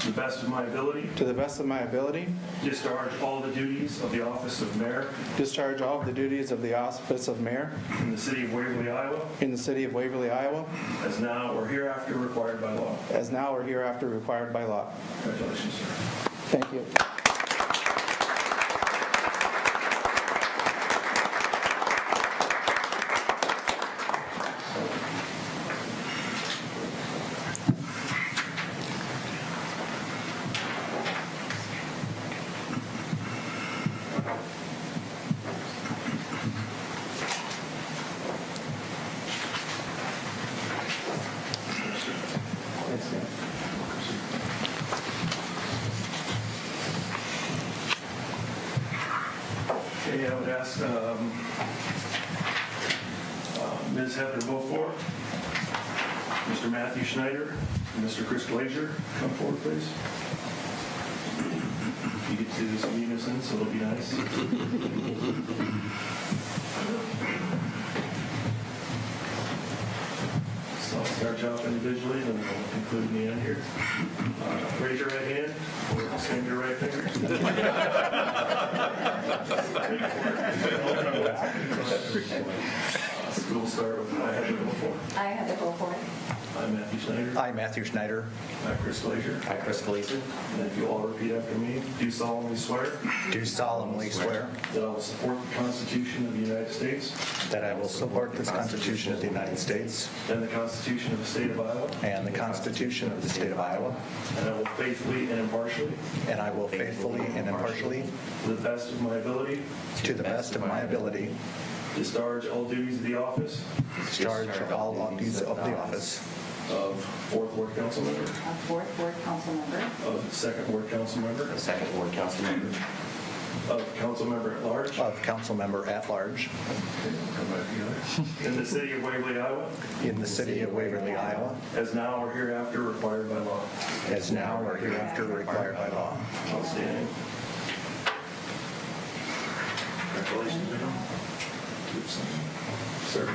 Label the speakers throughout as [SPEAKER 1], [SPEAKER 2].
[SPEAKER 1] to the best of my ability,
[SPEAKER 2] to the best of my ability,
[SPEAKER 1] discharge all the duties of the office of mayor
[SPEAKER 2] discharge all of the duties of the office of mayor
[SPEAKER 1] in the city of Waverly, Iowa,
[SPEAKER 2] in the city of Waverly, Iowa,
[SPEAKER 1] as now or hereafter required by law.
[SPEAKER 2] as now or hereafter required by law.
[SPEAKER 1] Congratulations, sir.
[SPEAKER 2] Thank you.
[SPEAKER 1] Okay, I would ask um, uh, Ms. Heather Beaufort, Mr. Matthew Schneider, and Mr. Chris Glazier, come forward, please. You get to do this in unison, so it'll be nice. So I'll start you off individually, and then we'll conclude in the end here. Uh, Raise your right hand, or extend your right finger. We'll start with I had to go for.
[SPEAKER 3] I have to go for it.
[SPEAKER 1] I'm Matthew Snyder.
[SPEAKER 4] I, Matthew Schneider.
[SPEAKER 1] I'm Chris Glazier.
[SPEAKER 4] I, Chris Gleason.
[SPEAKER 1] And if you all repeat after me, do solemnly swear
[SPEAKER 4] Do solemnly swear
[SPEAKER 1] that I will support the Constitution of the United States
[SPEAKER 4] that I will support the Constitution of the United States
[SPEAKER 1] and the Constitution of the State of Iowa,
[SPEAKER 4] and the Constitution of the State of Iowa,
[SPEAKER 1] and I will faithfully and impartially,
[SPEAKER 4] and I will faithfully and impartially,
[SPEAKER 1] to the best of my ability,
[SPEAKER 4] to the best of my ability,
[SPEAKER 1] discharge all duties of the office
[SPEAKER 4] discharge all duties of the office
[SPEAKER 1] of Fourth Ward Council Member,
[SPEAKER 3] A fourth ward council member,
[SPEAKER 1] of Second Ward Council Member,
[SPEAKER 5] The second ward council member.
[SPEAKER 1] of Council Member at Large
[SPEAKER 4] of council member at large
[SPEAKER 1] in the City of Waverly, Iowa,
[SPEAKER 4] in the city of Waverly, Iowa,
[SPEAKER 1] as now or hereafter required by law.
[SPEAKER 4] as now or hereafter required by law.
[SPEAKER 1] Outstanding. Congratulations, Bill. Sir. Sir.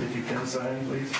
[SPEAKER 1] If you can sign, please.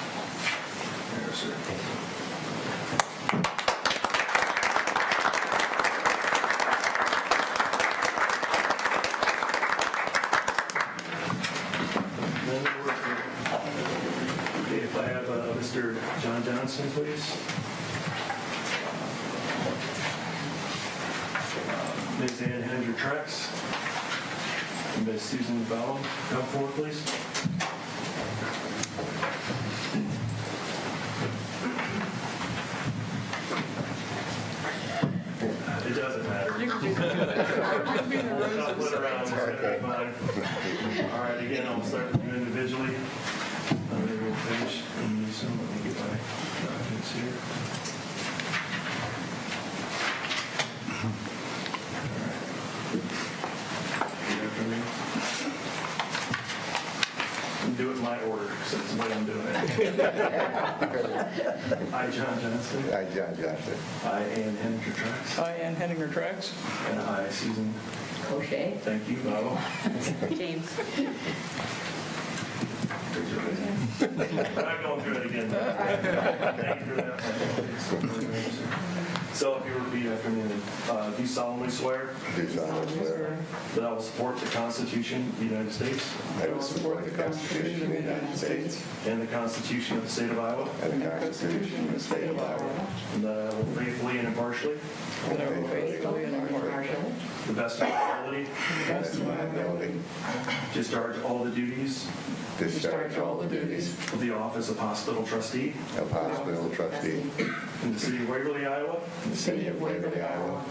[SPEAKER 1] Yes, sir. Then we're- Okay, If I have uh, Mr. John Johnson, please. Ms. Ann Hendrick Trex. And Ms. Susan Bellum, come forward, please. It doesn't matter. Not put around, it's gonna be fine. All right, again, I'll start with you individually. And then we'll finish in unison. Let me get my documents here. All right. Repeat after me. And Do it in my order, because that's the way I'm doing it. I, John Johnson.
[SPEAKER 6] I, John Johnson.
[SPEAKER 1] I, Ann Henninger Trax.
[SPEAKER 7] I, Ann Henninger Trax.
[SPEAKER 1] And I, Susan,
[SPEAKER 3] O'Shea,
[SPEAKER 1] thank you, Val.
[SPEAKER 3] James.
[SPEAKER 1] I'm not going through it again. Thank you for that. So if you repeat after me, uh, do solemnly swear
[SPEAKER 6] Do solemnly swear
[SPEAKER 1] that I will support the Constitution of the United States
[SPEAKER 6] I will support the Constitution of the United States
[SPEAKER 1] and the Constitution of the State of Iowa,
[SPEAKER 6] and the Constitution of the State of Iowa.
[SPEAKER 1] and that I will faithfully and impartially,
[SPEAKER 6] And I will faithfully and impartially,
[SPEAKER 1] to the best of my ability,
[SPEAKER 6] to the best of my ability,
[SPEAKER 1] discharge all the duties
[SPEAKER 6] discharge all the duties
[SPEAKER 1] of the office of hospital trustee
[SPEAKER 6] of hospital trustee
[SPEAKER 1] in the city of Waverly, Iowa,
[SPEAKER 6] in the city of Waverly, Iowa,